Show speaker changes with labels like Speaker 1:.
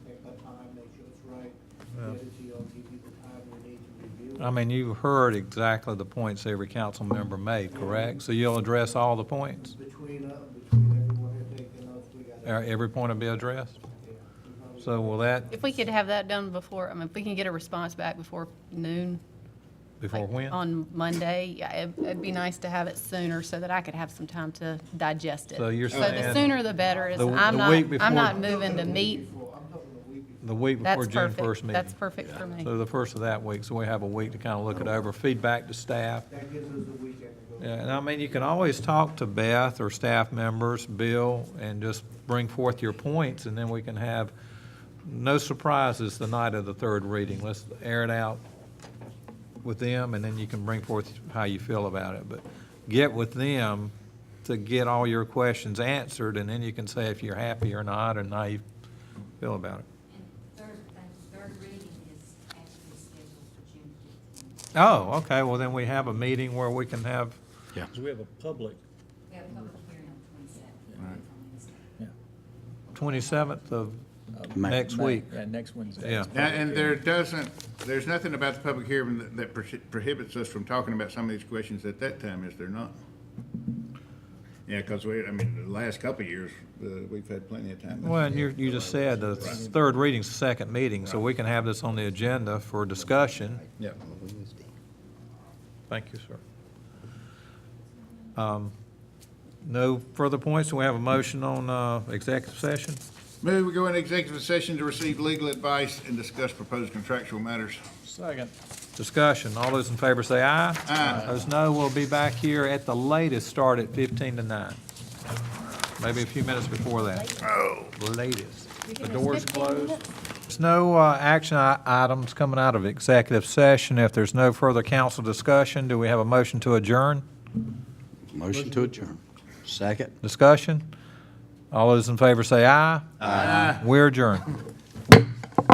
Speaker 1: I mean, you heard exactly the points every council member made, correct? So you'll address all the points?
Speaker 2: Between, uh, between everyone here taking notes, we got.
Speaker 1: Uh, Every point will be addressed? So will that,
Speaker 3: If we could have that done before, I mean, if we can get a response back before noon.
Speaker 1: before
Speaker 3: like,
Speaker 1: when?
Speaker 3: On Monday, yeah, it- it'd be nice to have it sooner so that I could have some time to digest it.
Speaker 1: So you're
Speaker 3: the
Speaker 1: saying
Speaker 3: sooner the better is,
Speaker 1: the-
Speaker 3: I'm
Speaker 1: the
Speaker 3: not,
Speaker 1: week
Speaker 3: I'm not
Speaker 1: before-
Speaker 3: moving to meet.
Speaker 2: Before, I'm talking the week before.
Speaker 1: The week before
Speaker 3: That's
Speaker 1: June first
Speaker 3: perfect.
Speaker 1: meeting?
Speaker 3: That's perfect for me.
Speaker 1: So the first of that week, so we have a week to kind of look it over, feedback to staff.
Speaker 2: That gives us a weekend to go.
Speaker 1: Yeah, and I mean, you can always talk to Beth or staff members, Bill, and just bring forth your points, and then we can have no surprises the night of the third reading. Let's air it out with them, and then you can bring forth how you feel about it. But get with them to get all your questions answered, and then you can say if you're happy or not, and how you feel about it.
Speaker 4: And third, and third reading is actually scheduled for June fifteenth.
Speaker 1: Oh, okay, well, then we have a meeting where we can have,
Speaker 5: Yeah.
Speaker 6: Because we have a public,
Speaker 4: We have a public hearing on twenty-seventh.
Speaker 6: yeah.
Speaker 1: 27th of
Speaker 5: May.
Speaker 1: next
Speaker 6: May,
Speaker 1: week.
Speaker 6: Yeah, next Wednesday.
Speaker 1: Yeah.
Speaker 7: Now, and there doesn't, there's nothing about the public hearing that- that prohibits us from talking about some of these questions at that time, is there not? Yeah, because we, I mean, the last couple of years, uh, we've had plenty of time.
Speaker 1: Well, and you, you just said the third reading's the second meeting, so we can have this on the agenda for discussion.
Speaker 7: Yeah.
Speaker 1: Thank you, sir. Um, No further points, do we have a motion on, uh, executive session?
Speaker 7: Move, we go into executive session to receive legal advice and discuss proposed contractual matters.
Speaker 6: Second.
Speaker 1: Discussion, all those in favor say aye.
Speaker 7: Aye.
Speaker 1: Those no, we'll be back here at the latest, start at fifteen to nine. Maybe a few minutes before that. Oh. Latest. The door's closed. There's no uh, action i- items coming out of executive session. If there's no further council discussion, do we have a motion to adjourn?
Speaker 5: Motion to adjourn. Second.
Speaker 1: Discussion? All those in favor say aye. Aye. We're adjourned.